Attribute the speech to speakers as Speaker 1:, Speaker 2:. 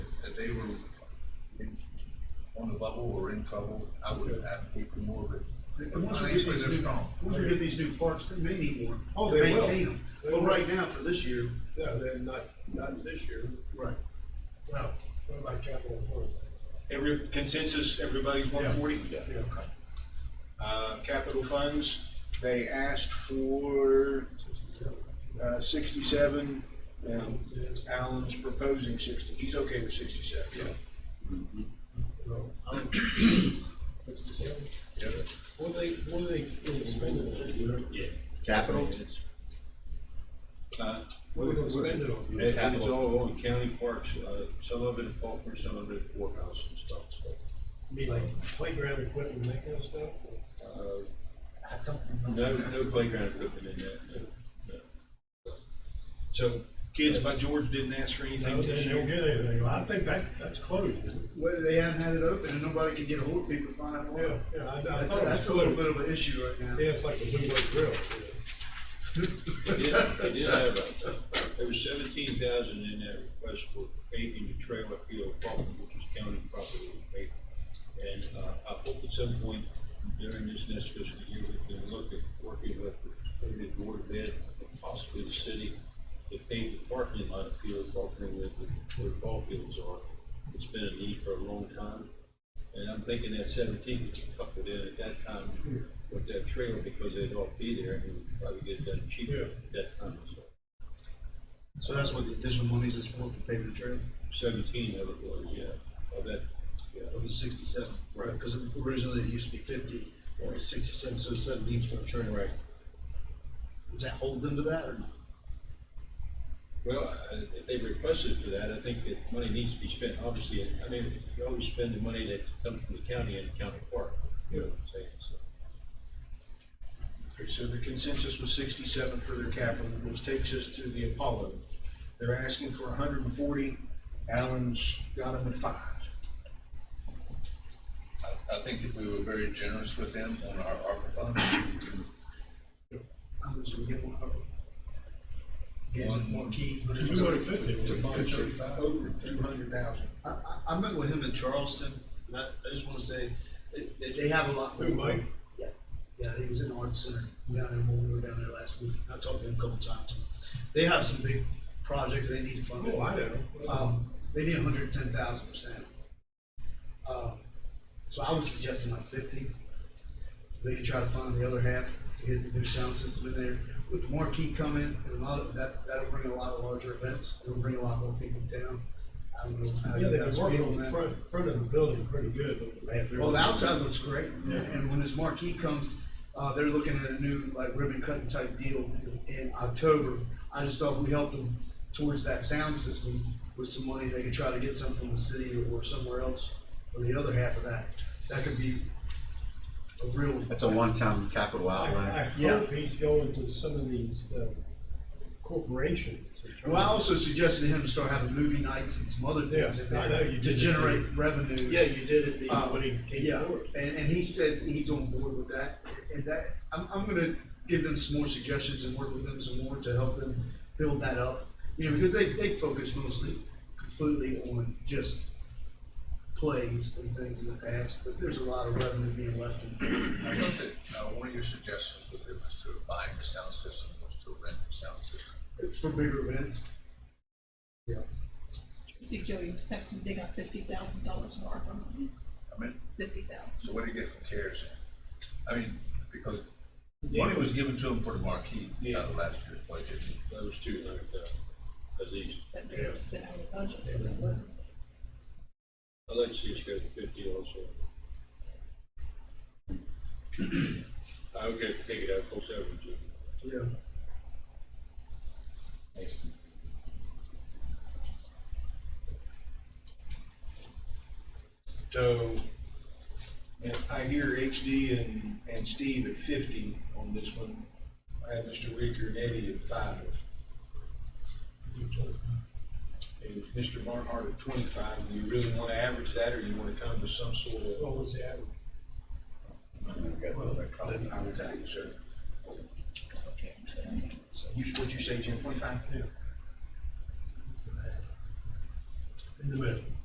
Speaker 1: they were in, on the bubble or in trouble, I would advocate for more of it.
Speaker 2: And once we get
Speaker 1: Financially,
Speaker 2: these
Speaker 1: they're
Speaker 2: new-
Speaker 1: strong.
Speaker 2: Once we get these new parks, they may need one.
Speaker 3: Oh,
Speaker 2: to
Speaker 3: they will.
Speaker 2: maintain 'em.
Speaker 3: They
Speaker 2: But
Speaker 3: will.
Speaker 2: right now, for this year.
Speaker 3: No, they're not, not this year.
Speaker 2: Right.
Speaker 3: Well, what about capital improvement?
Speaker 4: Every consensus, everybody's one forty? Uh, capital funds, they asked for, uh, sixty-seven, and Alan's proposing sixty, he's okay with sixty-seven.
Speaker 3: What they, what they spending fifty
Speaker 5: Yeah.
Speaker 6: Capital?
Speaker 5: Uh,
Speaker 3: What are they gonna spend it on?
Speaker 5: It happens all on county parks, uh, some of it at Faulkner, some of it at courthouse and stuff, so.
Speaker 3: Be like playground equipment, and that kind of stuff?
Speaker 5: uh, No, no playground equipment in that, no, no.
Speaker 4: So, kids by George didn't ask for anything
Speaker 3: No,
Speaker 4: this
Speaker 3: they don't
Speaker 4: year.
Speaker 3: get anything. I think that, that's closed.
Speaker 2: Whether they haven't had it open and nobody can get a hold of people to find out more.
Speaker 3: yeah, I, I
Speaker 2: That's,
Speaker 3: thought
Speaker 2: that's
Speaker 3: that's
Speaker 2: a little bit of an issue right now.
Speaker 3: Yeah, it's like a two-way grill.
Speaker 5: They did, they did have, a- there was seventeen thousand in that request for paving the trailer field, at Faulkner, which is county property. paved. And, uh, I hope at some point during this next fiscal year, we can look at working with the board of ed, possibly the city, to pave the parking lot of field, Faulkner, where the, where the ball fields are. It's been a need for a long time. And I'm thinking that seventeen could be coupled in at that time with that trailer because they'd all be there and we'd probably get it done cheaper at that time. So
Speaker 2: So that's what the additional monies is for, for paving the trail,
Speaker 5: Seventeen of it was, yeah, of that, yeah.
Speaker 2: of the sixty-seven.
Speaker 5: Right.
Speaker 2: Because originally it used to be fifty, or sixty-seven, so seventeen's for the trail.
Speaker 5: Right.
Speaker 2: Does that hold them to that or not?
Speaker 5: Well, I- if they requested for that, I think that money needs to be spent, obviously, I mean, you always spend the money that comes from the county and the county park. You know what I'm saying, so.
Speaker 4: Okay, so the consensus was sixty-seven for their capital, which takes us to the Apollo. They're asking for hundred and forty, Alan's got them at five.
Speaker 1: I, I think if we were very generous with them on our ARPA funds, we can
Speaker 2: How much do we get one of them? Is it
Speaker 1: One-
Speaker 2: one key?
Speaker 3: Two hundred fifty.
Speaker 4: It's a bunch of over two hundred thousand.
Speaker 2: I, I, I met with him in Charleston, and I, I just wanna say, they- they, they have a lot.
Speaker 3: Who, Mike?
Speaker 2: Yeah, yeah, he was in the arts center, down there, when we were down there last week, I talked to him a couple times. They have some big projects they need funding.
Speaker 3: Oh, I know.
Speaker 2: Um, they need hundred and ten thousand percent. Uh, so I was suggesting like fifty, so they could try to fund the other half to get the new sound system in there. With marquee coming and a lot of, that, that'll bring a lot of larger events, it'll bring a lot more people down. I don't know how
Speaker 3: Yeah,
Speaker 2: you
Speaker 3: they were
Speaker 2: guys
Speaker 3: working
Speaker 2: feel on
Speaker 3: on the
Speaker 2: that.
Speaker 3: front, front of the building pretty good.
Speaker 2: Well, the outside looks great, and when this marquee comes, uh, they're looking at a new, like, ribbon cutting type deal in October. I just thought if we helped them towards that sound system with some money, they could try to get some from the city or somewhere else, or the other half of that, that could be a real,
Speaker 6: That's a one-time capital
Speaker 3: I
Speaker 6: outlay.
Speaker 3: hope he's going to some of these uh, corporations. and trying-
Speaker 2: well, I also suggested to him to start having movie nights and some other things
Speaker 3: Yeah,
Speaker 2: in
Speaker 3: I know, you
Speaker 2: there
Speaker 3: did
Speaker 2: to
Speaker 3: that.
Speaker 2: generate revenues.
Speaker 3: Yeah, you did it, the,
Speaker 2: Uh,
Speaker 3: when he came
Speaker 2: Yeah,
Speaker 3: forward.
Speaker 2: and, and he said he's on board with that, and that, I'm, I'm gonna give them some more suggestions and work with them some more to help them build that up. You know, because they, they focus mostly completely on just plays and things in the past, but there's a lot of revenue being left in.
Speaker 1: I know that, uh, one of your suggestions was it was to buy the sound system, was to rent the sound system.
Speaker 2: It's for bigger events. Yeah.
Speaker 7: Ezekiel, you texted, they got fifty thousand dollars in ARPA money,
Speaker 1: I mean,
Speaker 7: fifty thousand.
Speaker 1: so what do you get from CARES? I mean, because money was given to them for the marquee, out of last year's budget.
Speaker 5: That was two uh, hundred thousand, at least.
Speaker 7: That they were spent out of budget, so that wasn't.
Speaker 5: I'd like to see us go to fifty also. I would have to take it out, close over to.
Speaker 2: Yeah.
Speaker 4: So, and I hear HD and, and Steve at fifty on this one. I have Mr. Ricker and Eddie at five. And Mr. Barnhart at twenty-five. Do you really want to average that, or you want to come to some sort of?
Speaker 3: What was the average?
Speaker 4: I would tell you, sir. So You, what'd you say, Jim, twenty-five?
Speaker 3: In the middle.